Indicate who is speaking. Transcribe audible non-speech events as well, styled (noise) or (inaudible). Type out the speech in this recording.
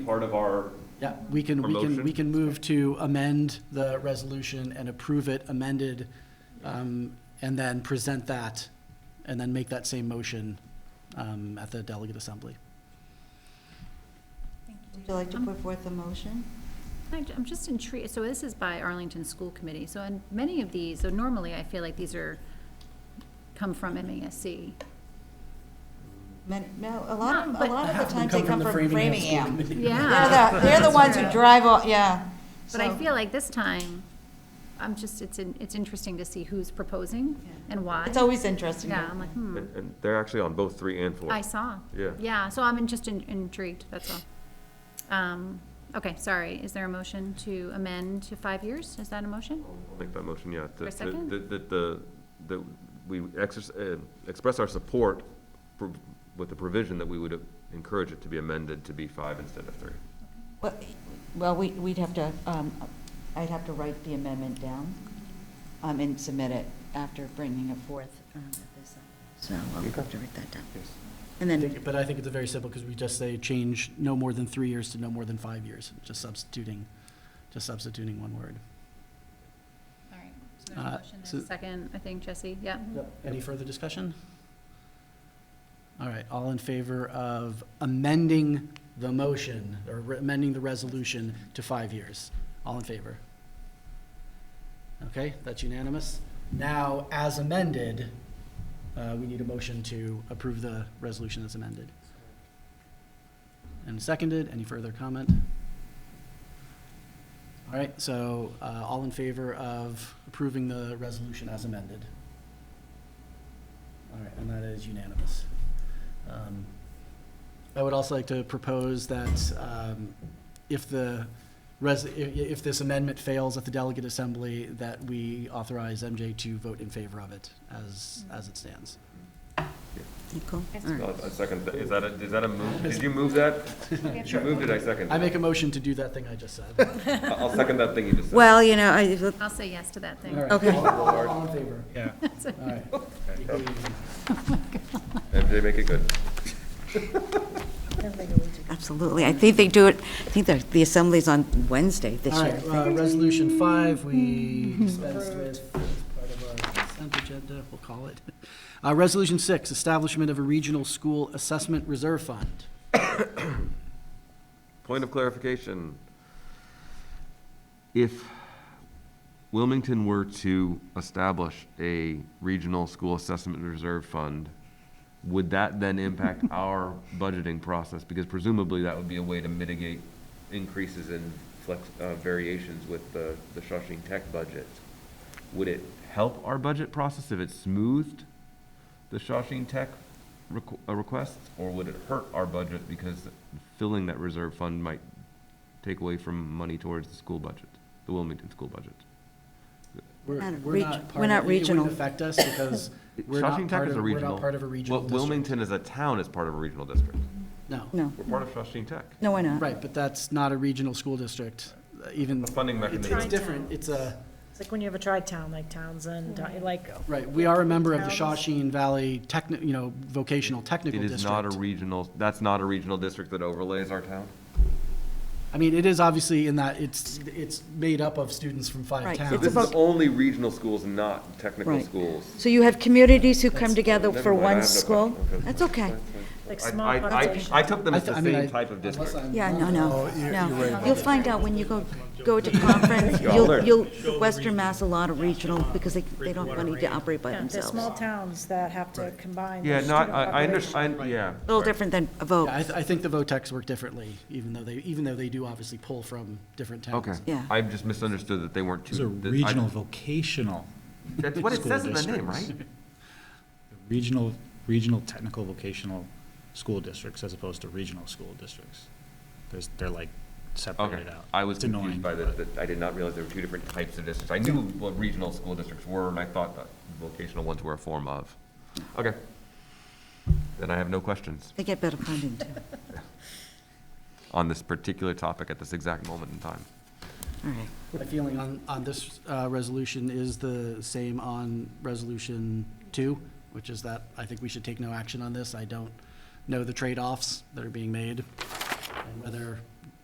Speaker 1: part of our,
Speaker 2: Yeah, we can, we can, we
Speaker 1: Promotion?
Speaker 2: can move to amend the resolution and approve it amended, um, and then present that, and then make that same motion, um, at the delegate assembly.
Speaker 3: Would you like
Speaker 4: Um,
Speaker 3: to put forth a motion?
Speaker 4: I- I'm just intrigued, so this is by Arlington School Committee, so in many of these, so normally I feel like these are, come from MASC.
Speaker 3: Many- No, a lot, of- a
Speaker 4: No, but-
Speaker 3: lot of the times they come from Framingham.
Speaker 4: (laughs) Yeah.
Speaker 3: They're the, they're the ones who drive, all yeah.
Speaker 4: But I
Speaker 3: so-
Speaker 4: feel like this time, I'm just, it's, in- it's interesting to see who's proposing
Speaker 3: Yeah.
Speaker 4: and why.
Speaker 3: It's always interesting.
Speaker 4: Yeah, I'm like, hmm,
Speaker 5: And, and they're actually on both three and four.
Speaker 4: I saw.
Speaker 5: Yeah.
Speaker 4: Yeah, so I'm in- just in- intrigued, that's all. Um, okay, sorry, is there a motion to amend to five years? Is that a motion?
Speaker 5: I'll Make that motion, yeah.
Speaker 4: For a second?
Speaker 5: That, that, the that we exerc- uh, express our support for, with the provision that we would encourage it to be amended to be five instead of three.
Speaker 3: Well, Well, we, we'd have to, um, I'd have to write the amendment down, um, and submit it after bringing it forth. um, at this, So I'll have to write that down.
Speaker 2: (laughs)
Speaker 3: And then,
Speaker 2: But I think it's very simple, because we just say change no more than three years to no more than five years, just substituting, just substituting one word.
Speaker 4: All right, so there's
Speaker 2: Uh,
Speaker 4: a motion, there's
Speaker 2: so-
Speaker 4: a second, I think, Jesse, yeah.
Speaker 2: Any further discussion? All right, all in favor of amending the motion, or re- amending the resolution to five years? All in favor? Okay, that's unanimous. Now, as amended, uh, we need a motion to approve the resolution as amended. And seconded, any further comment? All right, so uh, all in favor of approving the resolution as amended? All right, and that is unanimous. Um, I would also like to propose that um, if the, res- i- i- if this amendment fails at the delegate assembly, that we authorize MJ to vote in favor of it as, as it stands.
Speaker 3: Nicole? All right.
Speaker 5: A second, is that a, is that a move? Did you move that? You moved it, I second.
Speaker 2: I make a motion to do that thing I just said.
Speaker 5: I'll second that thing you just said.
Speaker 3: Well, you know, I,
Speaker 4: I'll say yes to that thing.
Speaker 2: (laughs) All right.
Speaker 3: Okay.
Speaker 2: All- All all in favor?
Speaker 1: Yeah.
Speaker 2: All right. Equally easy.
Speaker 5: MJ, make it good.
Speaker 3: absolutely. I think they do it, I think the, the assembly's on Wednesday this
Speaker 2: All
Speaker 3: year.
Speaker 2: right, uh, resolution five, we dispensed with as part of our consent agenda, we'll call it. Uh, resolution six, establishment of a regional school assessment reserve fund.
Speaker 5: Point of clarification. If Wilmington were to establish a regional school assessment reserve fund, would that then impact our budgeting process? Because presumably that would be a way to mitigate increases in flex, uh, variations with the, the Shawshing Tech budget. Would it help our budget process if it smoothed the Shawshing Tech requ- uh, requests? Or would it hurt our budget because filling that reserve fund might take away from money towards the school budget, the Wilmington school budget?
Speaker 2: We're,
Speaker 3: Not a
Speaker 2: we're
Speaker 3: reg-
Speaker 2: not
Speaker 3: we're
Speaker 2: part
Speaker 3: not
Speaker 2: of, it- it
Speaker 3: regional.
Speaker 2: wouldn't affect
Speaker 5: (laughs)
Speaker 2: us because we're
Speaker 5: Shawshing
Speaker 2: not
Speaker 5: Tech
Speaker 2: part
Speaker 5: is
Speaker 2: of,
Speaker 5: a
Speaker 2: we're
Speaker 5: regional.
Speaker 2: not part of a regional
Speaker 5: Wil-
Speaker 2: district.
Speaker 5: Wilmington as a town is part of a regional district.
Speaker 2: No,
Speaker 3: No,
Speaker 5: We're part of Shawshing Tech.
Speaker 3: no, why not?
Speaker 2: right, but that's not a regional school district, uh, even,
Speaker 5: A funding
Speaker 2: it's,
Speaker 5: mechanism.
Speaker 2: it's different, it's a,
Speaker 6: It's like when you have a tri-town, like Townsend, like,
Speaker 2: right, we are a member of the Shawshene Valley Techni, you know, vocational technical
Speaker 5: It
Speaker 2: district.
Speaker 5: is not a regional, that's not a regional district that overlays our town?
Speaker 2: I mean, it is obviously in that it's, it's made up of students from five
Speaker 3: Right,
Speaker 2: towns.
Speaker 3: So It's
Speaker 5: This is
Speaker 3: about-
Speaker 5: only regional schools, not technical
Speaker 3: Right.
Speaker 5: schools.
Speaker 3: So you have communities who come together
Speaker 5: Never
Speaker 3: for
Speaker 5: mind, I
Speaker 3: one
Speaker 5: have no
Speaker 3: school?
Speaker 5: question. Okay.
Speaker 3: That's okay.
Speaker 6: like
Speaker 5: I-
Speaker 6: small
Speaker 5: I- I-
Speaker 6: population.
Speaker 5: I took them
Speaker 2: I
Speaker 5: as
Speaker 2: th-
Speaker 5: the
Speaker 2: I mean,
Speaker 5: same
Speaker 2: I-
Speaker 5: type of district.
Speaker 2: unless I'm
Speaker 3: Yeah, no,
Speaker 2: wrong.
Speaker 3: no, no. You'll find out when you go, go to conference,
Speaker 5: Y'all
Speaker 3: you'll,
Speaker 5: learn.
Speaker 3: you'll, Western Mass a lot of regional, because they, they don't have money to operate by
Speaker 6: yeah, they're small
Speaker 3: themselves.
Speaker 6: towns that have to combine.
Speaker 5: Yeah,
Speaker 6: their
Speaker 5: no, I,
Speaker 6: student
Speaker 5: I- I
Speaker 6: population.
Speaker 5: understand, yeah.
Speaker 3: A little different than a vote,
Speaker 2: Yeah, I, th- I think the VOTEX work differently, even though they, even though they do obviously pull from different towns.
Speaker 5: Okay.
Speaker 3: Yeah.
Speaker 5: I just misunderstood that they weren't two.
Speaker 7: These are
Speaker 5: that I-
Speaker 7: regional vocational,
Speaker 5: That's what it
Speaker 7: school
Speaker 5: says in the name,
Speaker 7: districts.
Speaker 5: right?
Speaker 7: regional, regional technical vocational school districts as opposed to regional school districts. There's, they're like
Speaker 5: Okay,
Speaker 7: separated out.
Speaker 5: I was
Speaker 7: It's annoying,
Speaker 5: confused by the,
Speaker 7: but-
Speaker 5: that I did not realize there were two different types of districts. I knew what regional school districts were, and I thought that vocational ones were a form of. Okay. Then I have no questions
Speaker 3: they get better funding too.
Speaker 5: on this particular topic at this exact moment in time.
Speaker 3: All right,
Speaker 2: My feeling on, on this, uh, resolution is the same on resolution two, which is that I think we should take no action on this. I don't know the trade-offs that are being made, and whether